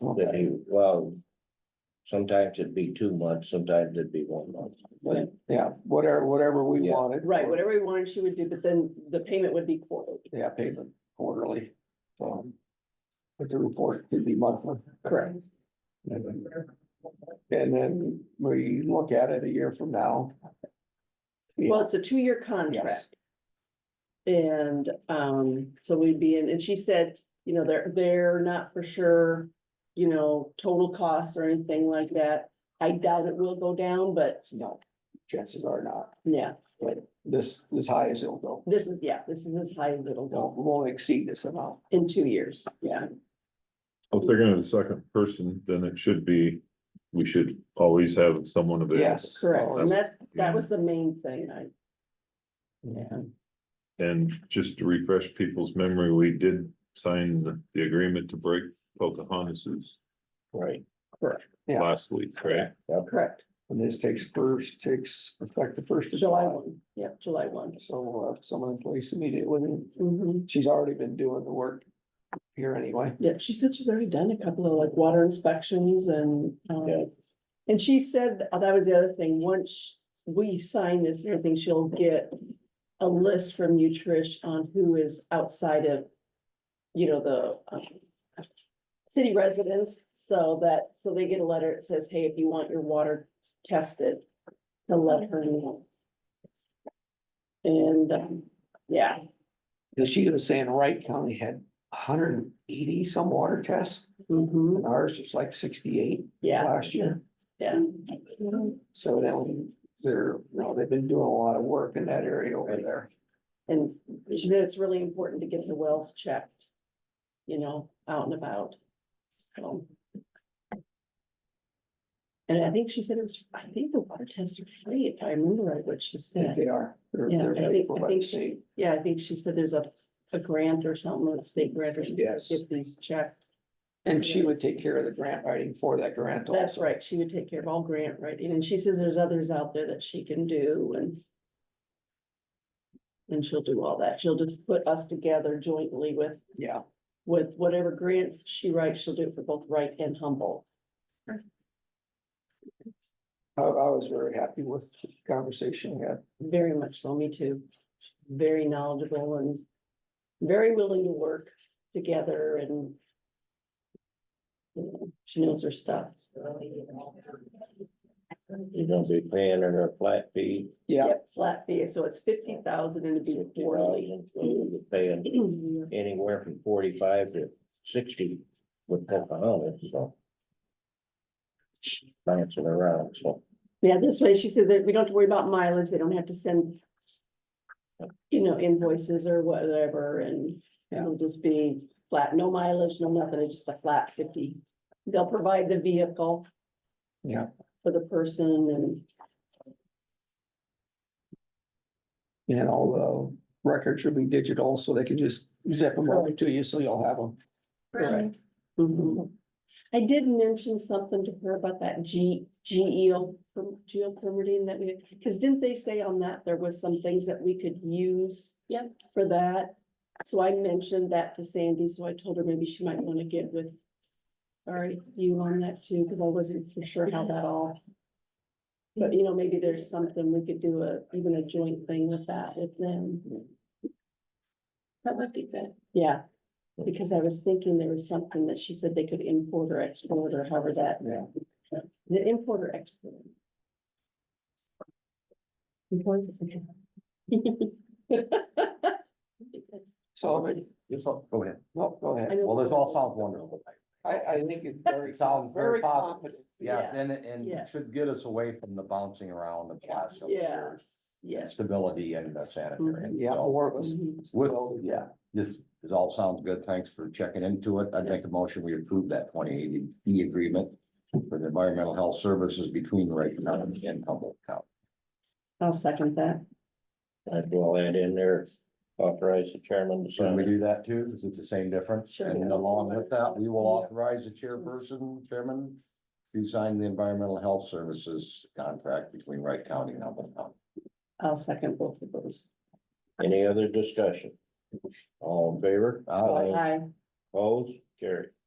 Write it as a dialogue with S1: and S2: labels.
S1: that he, well, sometimes it'd be two months, sometimes it'd be one month.
S2: Right.
S3: Yeah, whatever, whatever we
S1: Yeah.
S3: wanted.
S2: Right, whatever he wanted, she would do, but then the payment would be quarterly.
S3: Yeah, payment quarterly. Um, But the report could be monthly.
S2: Correct.
S3: And then we look at it a year from now.
S2: Well, it's a two-year contract. And, um, so we'd be in, and she said, you know, they're, they're not for sure, you know, total costs or anything like that. I doubt it will go down, but
S3: No, chances are not.
S2: yeah,
S3: This, as high as it'll go.
S2: this is, yeah, this is as high as it'll go
S3: Won't, won't exceed this amount.
S2: in two years, yeah.
S4: If they're gonna have a second person, then it should be, we should always have someone available.
S3: Yes. Oh,
S2: Correct, and that,
S4: yeah.
S2: that was the main thing, I. Yeah,
S4: And just to refresh people's memory, we did sign the- the agreement to break Pocahontas's
S1: Right.
S3: Yeah.
S4: last week, right?
S2: correct,
S3: And this takes first, takes effect the first of
S2: July
S3: July.
S2: one, yeah, July one.
S3: So we'll have someone in place immediately.
S2: Mhm.
S3: She's already been doing the work here anyway.
S2: Yeah, she said she's already done a couple of like water inspections and,
S1: Yeah.
S2: um, and she said, oh, that was the other thing, once we sign this, and everything, she'll get a list from you, Trish, on who is outside of, you know, the um, city residents, so that, so they get a letter that says, hey, if you want your water tested, to let her know. And, um, yeah,
S3: Cause she was saying Wright County had hundred and eighty some water tests
S2: mhm,
S3: and ours was like sixty-eight
S2: yeah,
S3: last year.
S2: yeah.
S3: So then they're, no, they've been doing a lot of work in that area over there.
S2: And she said it's really important to get the wells checked, you know, out and about, so. And I think she said it was, I think the water tests are free, if I remember right what she
S3: I think
S2: said.
S3: They are. They're-
S2: Yeah,
S3: they're
S2: I think,
S3: helpful
S2: I
S3: by
S2: think
S3: the
S2: she,
S3: state.
S2: yeah, I think she said there's a, a grant or something, a state grant, or something,
S3: Yes,
S2: get these checked.
S3: and she would take care of the grant writing for that grant also.
S2: That's right, she would take care of all grant writing, and she says there's others out there that she can do and. And she'll do all that, she'll just put us together jointly with
S3: Yeah,
S2: with whatever grants she writes, she'll do it for both Wright and Humboldt.
S3: I, I was very happy with the conversation we had.
S2: Very much so, me too. Very knowledgeable and very willing to work together and you know, she knows her stuff.
S1: You're gonna be paying her a flat fee.
S3: Yeah,
S2: Yep, Flat fee, so it's fifty thousand and it'd be quarterly.
S1: 50,000, so you're Paying anywhere from forty-five to sixty with Pocahontas, so. Bouncing around, so.
S2: Yeah, this way, she said that we don't have to worry about mileage, they don't have to send. You know, invoices or whatever, and it'll just be flat, no mileage, no nothing, it's just a flat fifty. They'll provide the vehicle.
S3: Yeah.
S2: For the person and,
S3: and all the records should be digital, so they can just zip them over to you, so you'll have them.
S2: Right.
S5: Mm-hmm.
S2: Mhm. I did mention something to her about that G, GEO, per- geo permitting that we, because didn't they say on that there was some things that we could use?
S5: Yep.
S2: For that, so I mentioned that to Sandy, so I told her maybe she might want to get with. All right, you on that too, because I wasn't for sure how that all. But you know, maybe there's something we could do a, even a joint thing with that with them.
S5: That would be good.
S2: Yeah, because I was thinking there was something that she said they could import or export or however that.
S3: Yeah.
S2: The import or export. Import. okay.
S3: So, if it-
S6: It's all, go ahead.
S3: no, go ahead.
S2: I know-
S6: Well, this all sounds wonderful.
S3: I, I think it's very.
S6: It sounds very positive.
S3: confident.
S6: Yes,
S2: Yes,
S6: and, it- and it
S2: yes.
S6: should get us away from the bouncing around the classroom.
S2: Yes, yes.
S6: Stability and the sanitary.
S3: Yeah,
S6: So,
S3: more of us.
S2: Mhm.
S6: With, yeah, this is all sounds good. Thanks for checking into it. I'd make a motion. We approve that twenty eighty E agreement for the environmental health services between Wright County and Humboldt County.
S2: I'll second that.
S1: I'd go add in there, authorize the chairman to
S6: Should
S1: sign.
S6: we
S1: it.
S6: do that too? Is it the same difference?
S2: Sure.
S6: And along with that, we will authorize the chairperson, chairman to sign the environmental health services contract between Wright County and Humboldt County.
S2: I'll second both of those.
S1: Any other discussion? All in favor?
S6: Aye.
S2: Aye.
S1: Opposed? Carry.